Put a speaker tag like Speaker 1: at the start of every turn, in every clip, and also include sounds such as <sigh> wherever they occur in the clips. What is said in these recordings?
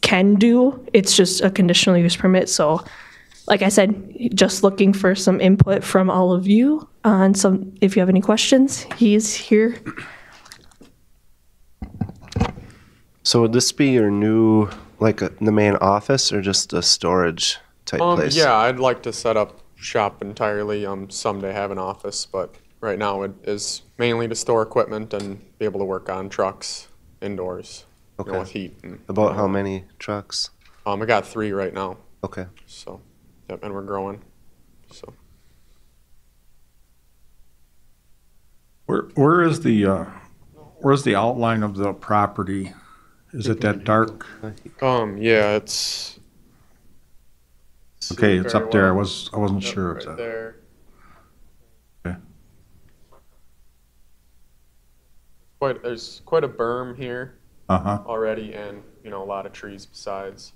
Speaker 1: can do. It's just a conditional use permit. So, like I said, just looking for some input from all of you on some, if you have any questions, he's here.
Speaker 2: So would this be your new, like uh, the main office or just a storage type
Speaker 3: Um,
Speaker 2: place?
Speaker 3: yeah, I'd like to set up shop entirely. Um, someday have an office, but right now it is mainly to store equipment and be able to work on trucks indoors you know,
Speaker 2: Okay.
Speaker 3: with heat. And,
Speaker 2: About how many trucks?
Speaker 3: um, I got three right now,
Speaker 2: Okay.
Speaker 3: so yep, and we're growing. So
Speaker 4: Where, where is the, uh, where's the outline of the property? Is it that dark?
Speaker 3: um, yeah, it's
Speaker 4: Okay, it's
Speaker 3: very
Speaker 4: up there. I
Speaker 3: well.
Speaker 4: was, I wasn't
Speaker 3: Yep,
Speaker 4: sure. if
Speaker 3: right
Speaker 4: that-
Speaker 3: there.
Speaker 4: Okay.
Speaker 3: Quite there's quite a berm here
Speaker 4: Uh-huh.
Speaker 3: already, and you know a lot of trees besides.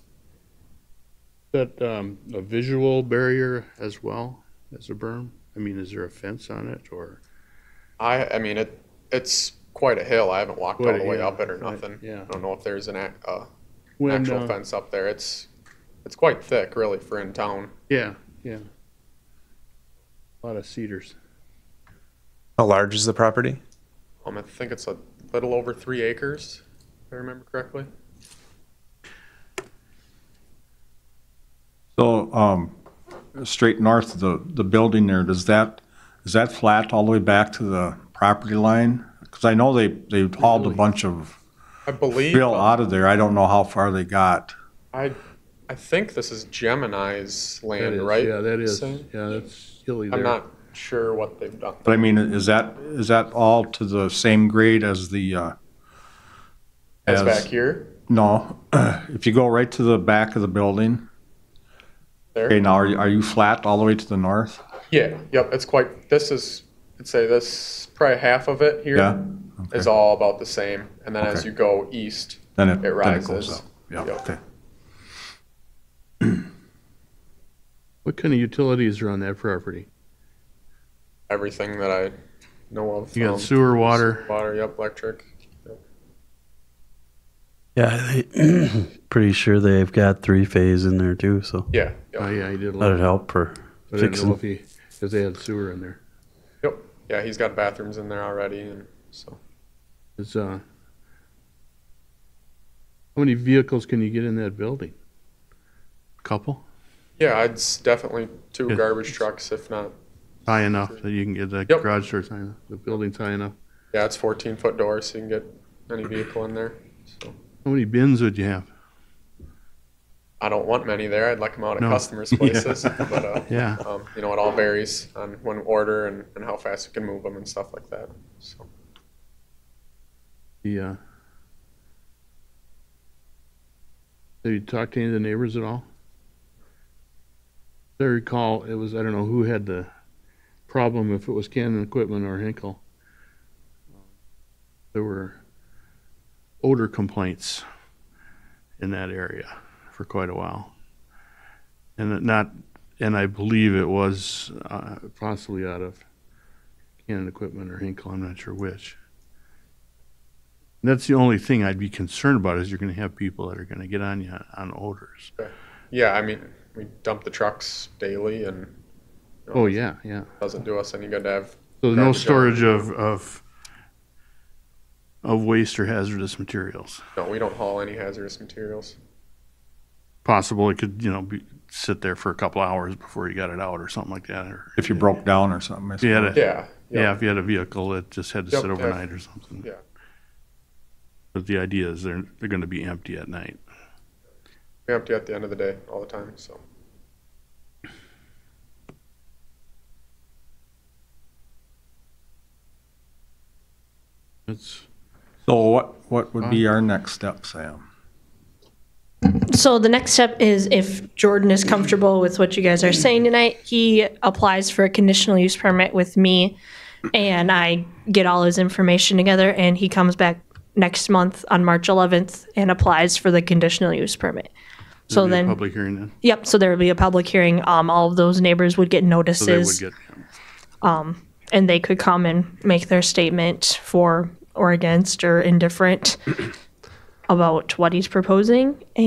Speaker 5: That um, a visual barrier as well as a berm? I mean, is there a fence on it or?
Speaker 3: I I mean it it's quite a hill. I haven't walked all
Speaker 5: Quite
Speaker 3: the
Speaker 5: a
Speaker 3: way
Speaker 5: hill,
Speaker 3: up it or
Speaker 5: right,
Speaker 3: nothing.
Speaker 5: yeah.
Speaker 3: I don't know if there's an ac- uh,
Speaker 5: When,
Speaker 3: actual
Speaker 5: uh,
Speaker 3: fence up there. It's it's quite thick, really, for in town.
Speaker 5: Yeah, yeah. A lot of cedars.
Speaker 6: How large is the property?
Speaker 3: Um, I think it's a little over three acres, if I remember correctly.
Speaker 4: So, um, straight north of the, the building there, does that, is that flat all the way back to the property line? Because I know they, they hauled a bunch of
Speaker 3: I believe uh,
Speaker 4: fill out of there. I don't know how far they got.
Speaker 3: I I think this is Gemini's
Speaker 5: That
Speaker 3: land,
Speaker 5: is,
Speaker 3: right?
Speaker 5: Yeah, that is,
Speaker 3: Sam?
Speaker 5: yeah, that's hilly there.
Speaker 3: I'm not sure what they've done.
Speaker 4: But I mean, is that, is that all to the same grade as the, uh,
Speaker 3: It's
Speaker 4: as-
Speaker 3: back here.
Speaker 4: No, <clears throat> if you go right to the back of the building,
Speaker 3: There.
Speaker 4: okay, now are you, are you flat all the way to the north?
Speaker 3: Yeah. Yep. It's quite. This is. I'd say this probably half of it here is
Speaker 4: Yeah, okay.
Speaker 3: all about the same, and then as
Speaker 4: Okay.
Speaker 3: you go east,
Speaker 4: Then it,
Speaker 3: It
Speaker 4: then it goes
Speaker 3: rises.
Speaker 4: up. Yeah,
Speaker 3: Yep.
Speaker 4: okay.
Speaker 5: What kind of utilities are on that property?
Speaker 3: everything that I know of.
Speaker 5: You
Speaker 3: um,
Speaker 5: got sewer, water,
Speaker 3: Water. Yep. Electric.
Speaker 7: Yeah, they, <clears throat> pretty sure they've got three phase in there too, so
Speaker 3: Yeah. Yep.
Speaker 5: oh yeah, he did a
Speaker 7: that'd
Speaker 5: lot.
Speaker 7: help for
Speaker 5: But I didn't
Speaker 7: fixing.
Speaker 5: know if he, if they had sewer in there.
Speaker 3: Yep. Yeah. He's got bathrooms in there already, and so
Speaker 5: It's, uh, how many vehicles can you get in that building? Couple?
Speaker 3: yeah, I'd s- definitely two
Speaker 5: Yeah.
Speaker 3: garbage trucks, if not.
Speaker 5: High enough that you can get the
Speaker 3: Yep.
Speaker 5: garage doors high enough, the building's high enough.
Speaker 3: Yeah, it's 14 foot doors, so you can get any vehicle in there. So
Speaker 5: How many bins would you have?
Speaker 3: I don't want many there. I'd like them out at
Speaker 5: No.
Speaker 3: customers'
Speaker 5: <laughs> Yeah.
Speaker 3: places, but
Speaker 5: <laughs>
Speaker 3: uh,
Speaker 5: Yeah.
Speaker 3: um, you know, it all varies on when order and, and how fast you can move them and stuff like that. So
Speaker 5: The, uh, have you talked to any of the neighbors at all? As I recall, it was, I don't know who had the problem, if it was Cannon Equipment or Hinkle. There were odor complaints in that area for quite a while. And it not, and I believe it was uh, possibly out of Cannon Equipment or Hinkle, I'm not sure which. And That's the only thing I'd be concerned about is you're going to have people that are going to get on you on, on odors.
Speaker 3: yeah, I mean, we dump the trucks daily, and you know,
Speaker 5: Oh yeah, yeah.
Speaker 3: it doesn't do us any good to have.
Speaker 5: So no
Speaker 3: Garbage
Speaker 5: storage of of of waste or hazardous materials.
Speaker 3: No, we don't haul any hazardous materials.
Speaker 5: Possible it could you know be, sit there for a couple hours before you got it out or something like that. Or
Speaker 4: If you broke down or something. I
Speaker 5: If you had
Speaker 4: suppose.
Speaker 5: a-
Speaker 3: Yeah,
Speaker 5: yeah, if you had a vehicle that just had to
Speaker 3: Yep,
Speaker 5: sit
Speaker 3: yeah.
Speaker 5: overnight or something.
Speaker 3: Yeah.
Speaker 5: But the idea is they're they're going to be empty at night.
Speaker 3: We empty at the end of the day all the time. So
Speaker 5: That's
Speaker 4: So what, what would be our next step, Sam?
Speaker 1: So the next step is if Jordan is comfortable with what you guys are saying tonight, he applies for a conditional use permit with me and I get all his information together and he comes back next month on March 11th and applies for the conditional use permit. So
Speaker 5: there'd be a
Speaker 1: then,
Speaker 5: public hearing then.
Speaker 1: yep, so there would be a public hearing. Um, all of those neighbors would get
Speaker 5: So they would
Speaker 1: notices
Speaker 5: get
Speaker 1: and they could come and make their statement for or against or indifferent about what he's proposing.